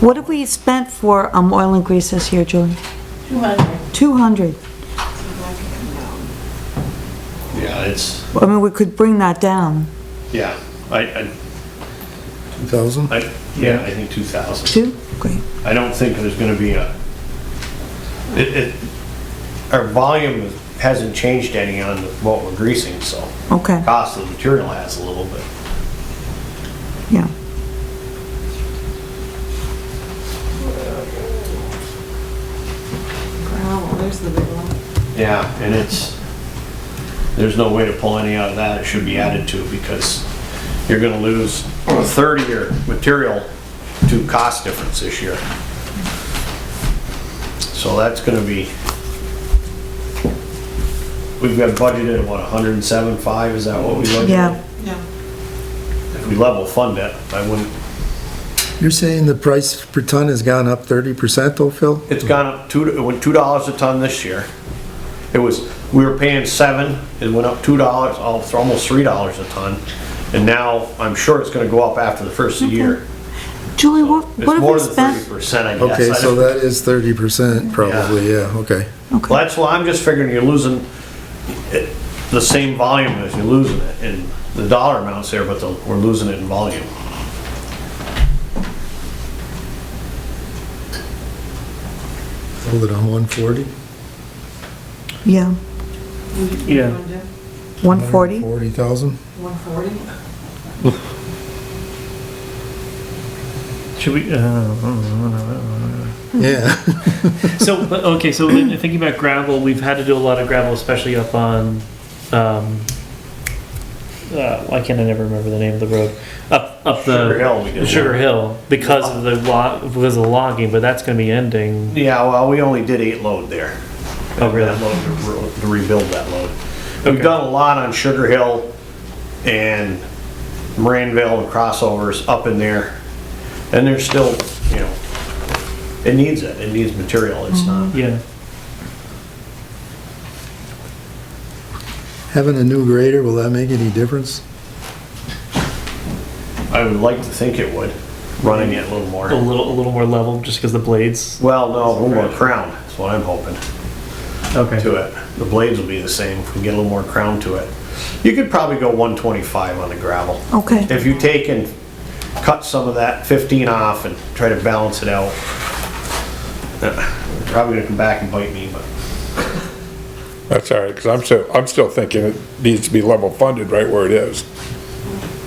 What have we spent for um, oil and grease this year, Julie? 200. 200. Yeah, it's, I mean, we could bring that down. yeah, I, I, 2,000? I, yeah, I think two thousand. Two? Great. I don't think there's gonna be a, it, it, our volume hasn't changed any on what we're greasing, so. Okay, Cost of the material has a little bit. yeah. Wow, there's the big one. Yeah, and it's, there's no way to pull any out of that, it should be added to, because you're gonna lose a third of your material to cost difference this year. So that's gonna be, we've got budgeted, what, hundred and seven five, is that what we budgeted? Yeah. Yeah. If we level fund it, I wouldn't, You're saying the price per ton has gone up 30% though, Phil? it's gone up two, it went two dollars a ton this year. It was, we were paying seven, it went up two dollars, almost three dollars a ton. And now, I'm sure it's gonna go up after the first of the year. Julie, what, what It's have we more than thirty spent? percent, I guess. Okay, I so don't- that is 30% probably, yeah, okay. Well, That's why I'm just figuring you're losing it- the same volume as you're losing it, and the dollar amount's there, but the- we're losing it in volume. Hold it on 140? Yeah, Yeah. 140? 40,000? 140? Should we? Uh, Yeah. so but- okay. So then thinking about gravel, we've had to do a lot of gravel, especially up on. Um, uh, why can't I never remember the name of the road? Up up the Sugar Hill we did Sugar one. Hill because of the log because of the logging, but that's going to be ending. Yeah, well, we only did eight load there. Oh, really? That load to re- To rebuild that load. We've Okay. done a lot on Sugar Hill and Moranville and crossovers up in there. And there's still, you know, it needs it, it needs material, it's not. Yeah. Having a new grader, will that make any difference? I would like to think it would, running it a little A more. little a little more level just because the blades. Well, no, a little more crown, that's what I'm hoping, Okay. to it. The blades will be the same, if we get a little more crown to it. You could probably go 125 on the gravel. Okay, If you take and cut some of that 15 off and try to balance it out, uh, probably gonna come back and bite me, but That's all right, because I'm still, I'm still thinking it needs to be level funded right where it is.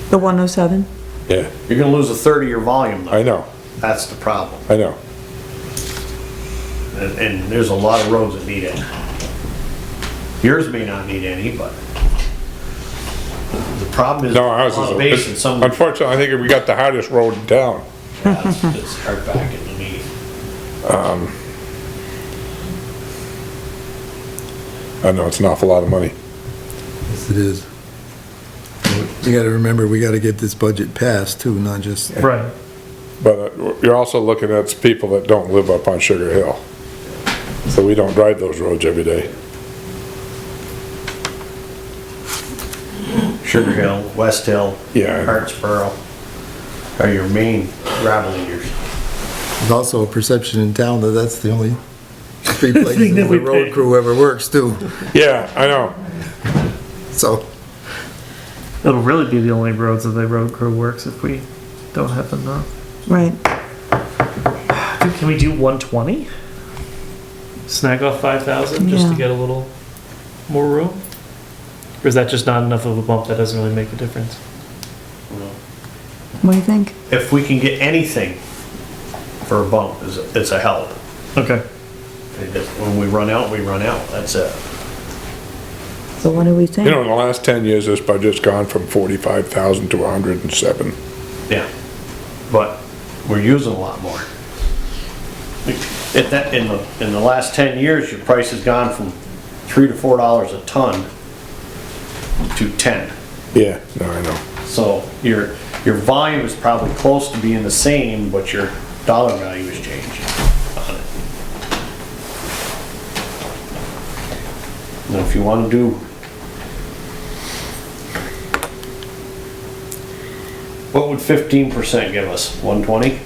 the 107? Yeah. you're gonna lose a third of your volume I though. know, That's the problem. I know. And, and there's a lot of roads that need it. Yours may not need any, but the problem is. No, ours on is, base and it's- some. unfortunately, I think we got the hardest road in town. Yeah, it's- it's hard back in the knee. I know, it's an awful lot of money. Yes, it is. You gotta remember, we gotta get this budget passed too, not just, Right. But uh, you're also looking at people that don't live up on Sugar Hill. So we don't drive those roads every day. Sugar Hill, West Hill. Yeah. Hartsboro are your main gravel leaders. there's also a perception in town that that's the only three places that where the we pay. road crew ever works too, Yeah, I know. so. It'll really be the only roads that the road crew works if we don't have enough. Right. Dude, can we do 120? Snag off 5,000 just to Yeah. get a little more room? Or is that just not enough of a bump that doesn't really make a difference? What do you think? If we can get anything for a bump, is it's a help. Okay. It is- When we run out, we run out, that's it. So what do we You know, think? in the last ten years, this budget's gone from forty-five thousand to hundred and seven. Yeah, but we're using a lot more. At that, in the, in the last ten years, your price has gone from three to four dollars a ton to ten. Yeah, no, I know. So your, your volume is probably close to being the same, but your dollar value is changing on it. Now, if you wanna do. What would fifteen percent give us? One twenty?